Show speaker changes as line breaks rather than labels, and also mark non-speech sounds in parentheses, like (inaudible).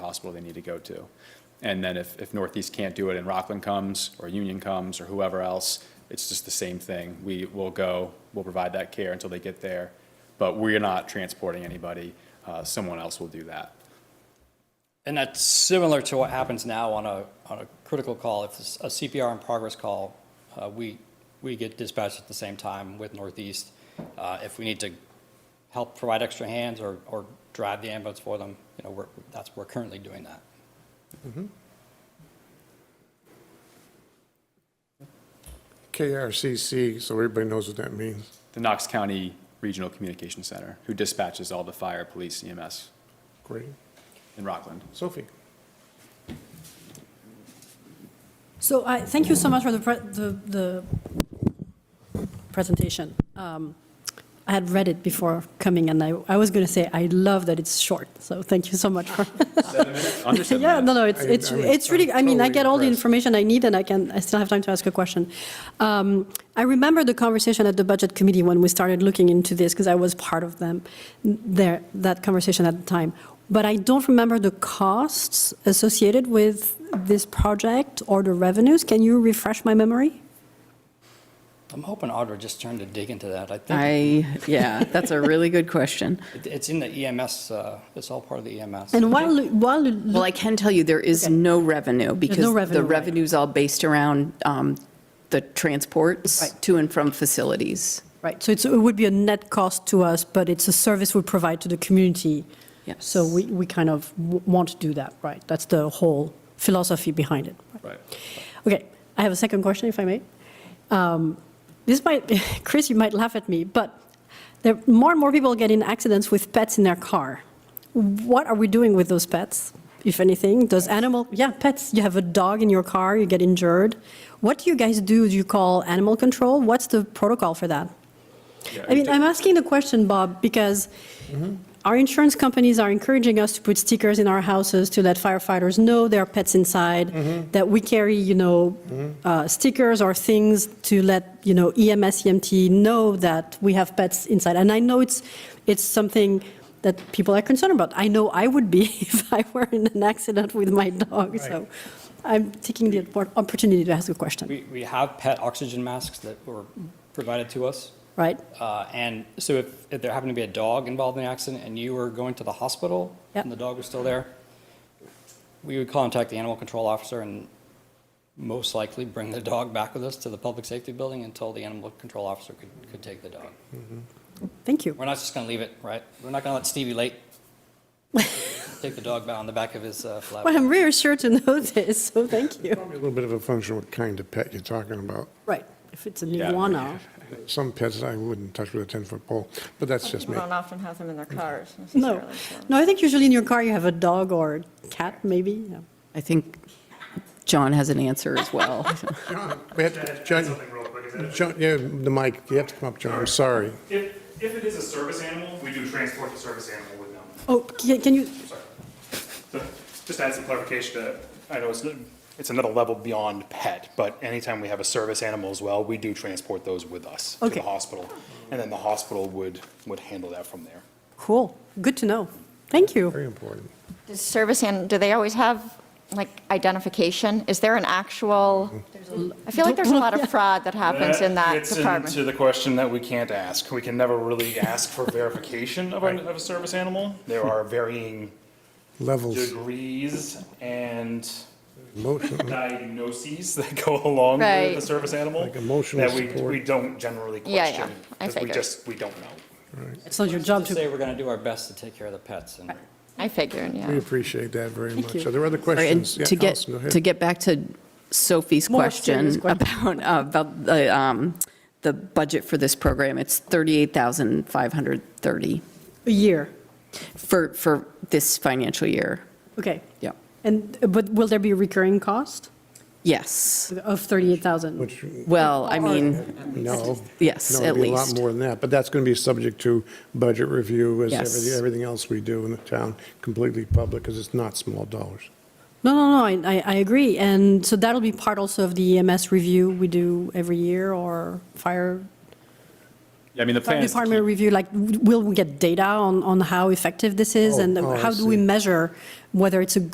hospital they need to go to. And then if, if Northeast can't do it and Rockland comes, or Union comes, or whoever else, it's just the same thing. We will go, we'll provide that care until they get there, but we're not transporting anybody. Uh, Someone else will do that.
And that's similar to what happens now on a, on a critical call. If it's a CPR in progress call, uh, we, we get dispatched at the same time with Northeast. Uh, If we need to help provide extra hands or, or drive the ambulance for them, you know, we're, that's, we're currently doing that.
KRCC, so everybody knows what that means.
The Knox County Regional Communication Center, who dispatches all the fire, police, EMS
Great.
in
(laughs)
Rockland.
Sophie?
So I, thank you so much for the, pre- the, the presentation. Um, I had read it before coming, and I, I was going to say, I love that it's short, so thank you so much for.
Under seven
Yeah,
minutes.
no, no, it's,
I-
it's,
I was-
it's really, I mean, I
totally
get all the
impressed.
information I need, and I can, I still have time to ask a question. Um, I remember the conversation at the Budget Committee when we started looking into this, because I was part of them, there, that conversation at the time. But I don't remember the costs associated with this project or the revenues. Can you refresh my memory?
I'm hoping Audra just turned to dig into that. I think
I, yeah, that's a really good question.
it- it's in the EMS, uh, it's all part of the EMS.
And while, while,
Well, I can tell you, there is no revenue because
revenue,
the
right.
revenue's all based around um, the transports
Right.
to and from facilities.
right, so it's, it would be a net cost to us, but it's a service we provide to the community.
Yes.
So we, we kind of w- want to do that, right? That's the whole philosophy behind it.
Right.
Okay, I have a second question, if I may. Um, This might, (laughs) Chris, you might laugh at me, but there, more and more people get in accidents with pets in their car. What are we doing with those pets, if anything? Does animal, yeah, pets, you have a dog in your car, you get injured. What do you guys do? Do you call animal control? What's the protocol for that? I mean, I'm asking the question, Bob, because our insurance companies are encouraging us to put stickers in our houses to let firefighters know there are pets inside, that we carry, you know, uh, stickers or things to let, you know, E EMS, EMT know that we have pets inside. And I know it's, it's something that people are concerned about. I know I would be (laughs) if I were in an accident with my dog, so I'm taking the oppor- opportunity to ask a question,
We, we have pet oxygen masks that were provided to us.
right?
Uh, And so if, if there happened to be a dog involved in the accident and you were going to the hospital
Yep.
and the dog was still there, we would contact the animal control officer and most likely bring the dog back with us to the public safety building until the animal control officer could, could take the dog.
Thank you.
We're not just going to leave it, right? We're not going to let Stevie
(laughs)
Late take the dog on the back of his uh,
Well,
flat.
I'm reassured to know (laughs) this, so thank you.
Probably a little bit of a function what kind of pet you're talking about.
Right, if it's an
Yeah.
(laughs)
iguana.
Some pets I wouldn't touch with a 10-foot pole, but that's just
People
me.
don't often have them in their cars
No,
necessarily. so.
no, I think usually in your car you have a dog or a cat, maybe. yeah.
I think John has an answer as
(laughs)
well.
We have to- John,
Something real quick, is that
John, yeah, the mic, you have to come up, John, I'm sorry.
if, if it is a service animal, we do transport the service animal with them.
Oh, ca- can you,
So, Just to add some clarification to, I know it's, it's another level beyond pet, but anytime we have a service animal as well, we do transport those with us to
Okay.
the hospital. And then the hospital would, would handle that from there.
cool, good to know. Thank you.
Very important.
Does service, and do they always have, like, identification? Is there an actual,
Mm-hmm.
I feel like there's a lot of fraud that happens in that
It's into
department.
the question that we can't ask. We can never really ask for verification of a, of a service animal. There are varying
Levels,
degrees and
emotional,
diagnoses (laughs) that go along with the
Right.
service animal.
Like emotional
That we,
support.
we don't generally
Yeah, yeah.
question.
I
Because we
figured.
just, we don't know.
It's not your job
Just
to,
say we're going to do our best to take care of the pets and
I figured,
we
yeah.
appreciate that very much.
you.
Are there other
And
questions? Yeah,
to get,
Allison, go ahead.
to get back to Sophie's
More
question
serious
(laughs) about, uh, about the, um, the budget for this program, it's 38,530
a year,
for, for this financial year.
okay.
Yeah.
And, but will there be a recurring cost
Yes.
of 38,000?
Which,
Well, I mean.
no.
Yes,
No,
at
it'd be a lot
least.
more than that, but that's going to be subject to budget review as
Yes.
everything- everything else we do in the town, completely public, because it's not small dollars.
No, no, no, I, I- I agree, and so that'll be part also of the EMS review we do every year, or fire
Yeah, I mean, the plan
fire
is to
department
keep-
review, like, w- will we get data on, on how effective this is?
Oh,
And
oh, I
how do we
see.
measure whether it's a